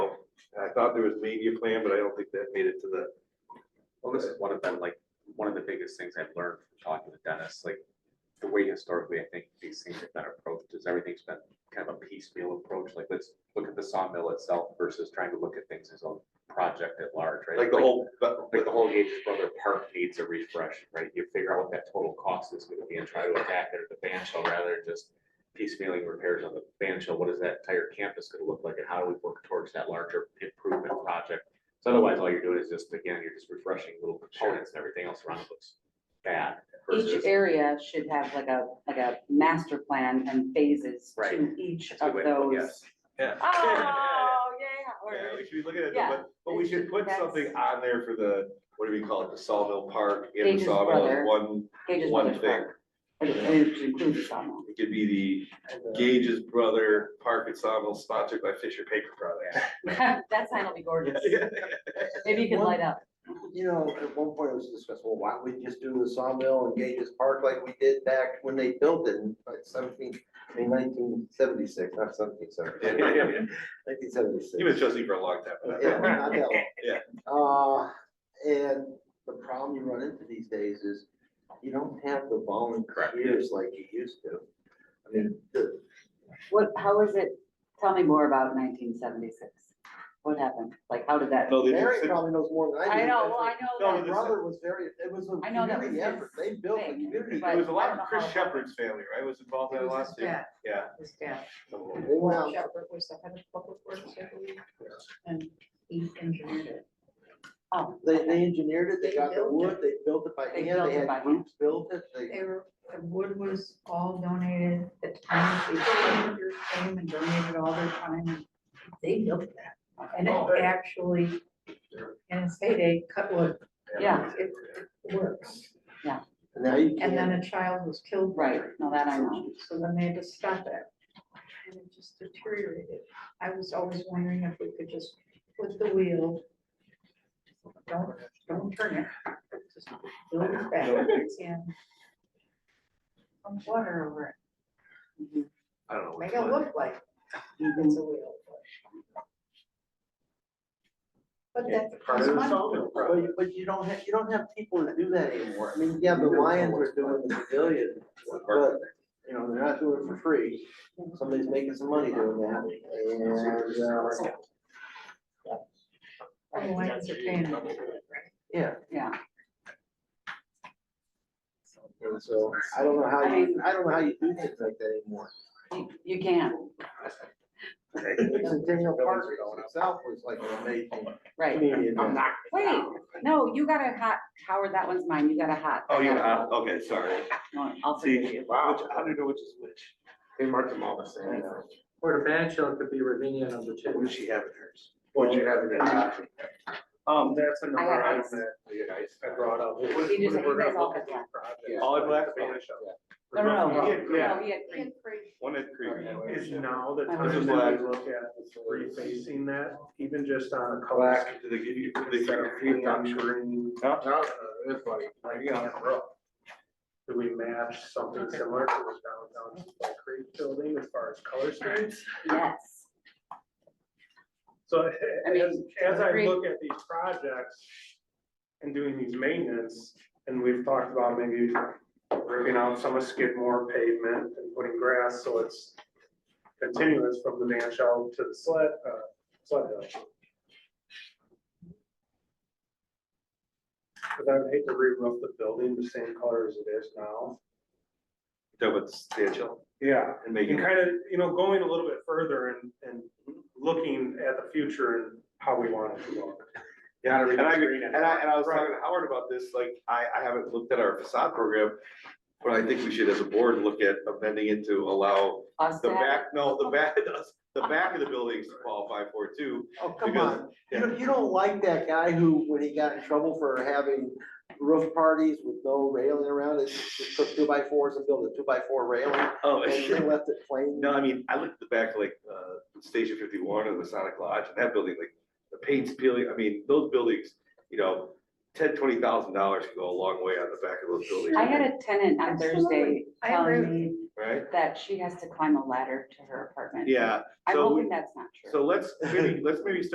thought there was maybe a plan, but I don't think that made it to the, Well, this is one of them, like, one of the biggest things I've learned from talking to Dennis, like, the way historically, I think these things have been approached is everything's been kind of a piecemeal approach, like, let's look at the sawmill itself versus trying to look at things as a project at large, right? like the whole, but- Like the whole Gates Brother Park needs a refresh, right? You figure out what that total cost is gonna be and try to attack it at the ban shell rather than just piecemealing repairs on the ban shell. What is that entire campus gonna look like and how do we work towards that larger improvement project? So otherwise, all you're doing is just, again, you're just refreshing little components and everything else around it looks bad. Each versus- area should have like a, like a master plan and phases to Right. each That's a of good way to look at it. those. yeah. Oh, yeah, or- Yeah, we should be looking at it, Yeah. but, but we should put That's- something on there for the, what do we call it, the Sawmill Park and the Gage's Sawmill brother. is one, Gage's one Brothers thing. Park. And it- and it should include the sawmill. It could be uh, the Gage's Brother Park and Sawmill sponsored by Fisher Paper Products. That sign will be gorgeous. Maybe you can light up. You know, at one point it was discussed, well, why don't we just do the sawmill and Gages Park like we did back when they built it in like seventeen, I mean nineteen seventy-six, not seventeen seventy. Nineteen seventy-six. He was trustee for a long time. but Yeah, not that long. Yeah. Uh, and the problem you run into these days is you don't have the volunteers like you used to. I mean, the, What, how is it, tell me more about nineteen seventy-six. What happened? Like, how did that? No, they Mary just, probably knows more than I do. I know, well, I No, know My this- that. brother was very, it was a I know that was community his effort. They built a thing, community. it was a I lot don't know of Chris how- Shepherd's family, right, was involved in that last too? Yeah, Yeah. his dad. They went out Shepherd was the head of public works, I believe. And he engineered it. Oh, They, they engineered it, they They got the built wood, they built it by They hand, built they it by had hand. groups built it, they, They were, the wood was all donated, the time, the villagers came and donated all their time and they built that. And it actually, in its heyday, cut wood, Yeah. it it works. and now you And then can't. a child was killed. by right, it. no, that I know. So then they had to stop that. And it just deteriorated. I was always wondering if we could just put the wheel. Don't, don't turn it. Just build it back and. Some water over it. Mhm, I don't know. Make which it one. look like mhm. it's a wheel. But Yeah, that's. part of the sawmill But, project. but you don't have, you don't have people to do that anymore. I mean, yeah, the Lions are doing the pavilion, but, you know, they're not doing it for free. Somebody's making some money doing that, and, uh, Oh, I was paying. yeah, Yeah, and so, I don't know how you, I don't know how you do things like that anymore. you, you can, Centennial Park itself was like an amazing right. community. event. Wait, no, you got a hot, Howard, that one's mine. You got a hot. Oh, I you, got a uh, cold. okay, sorry. No, I'll See, forgive which, you. how do you know which is which? They mark them all the same. Or the ban shell could be Ravinia number two. What does she have in hers? What you have in there. Um, That's I another had item ice. that you guys. I brought up. You just- you guys all had black. All in black? No, no, no, Yeah, no, he had green. Increase. One at Creamy. Is now the This time is that black. we look at refacing that, even just on a color. Black, do they give you, do they instead give of you green on Reducturing. No. It's funny. Do we match something similar to the downtown Black Creek building as far as color schemes? Yes. So I as, mean, as I agree. look at these projects and doing these maintenance, and we've talked about maybe ripping out some of Skidmore pavement and putting grass, so it's continuous from the man shell to the sled, uh, sled hill. But I would hate to re-roof the building the same color as it is now. That was substantial Yeah, and and making. kind of, you know, going a little bit further and, and looking at the future and how we want it to look. Yeah, Gotta and I, agree. redesign it. and I, and I was Right. talking to Howard about this, like, I, I haven't looked at our facade program. But I think we should, as a board, look at amending it to allow Us the to have- back, no, the back, the back of the buildings to qualify for it too. Oh, come Because- on. You don't, you don't like that guy who, when he got in trouble for having roof parties with no railing around it, just took two by fours and built a two by four railing Oh, and then left it plain. No, I mean, I looked at the back, like, uh, Station fifty-one or the Masonic Lodge, and that building, like, the paint's peeling, I mean, those buildings, you know, ten, twenty thousand dollars can go a long way on the back of those buildings, I had a tenant on Thursday Absolutely. I agree telling with me right? that she has to climb a ladder to her apartment. Yeah, I'm so, hoping that's not true. so let's, maybe, let's maybe start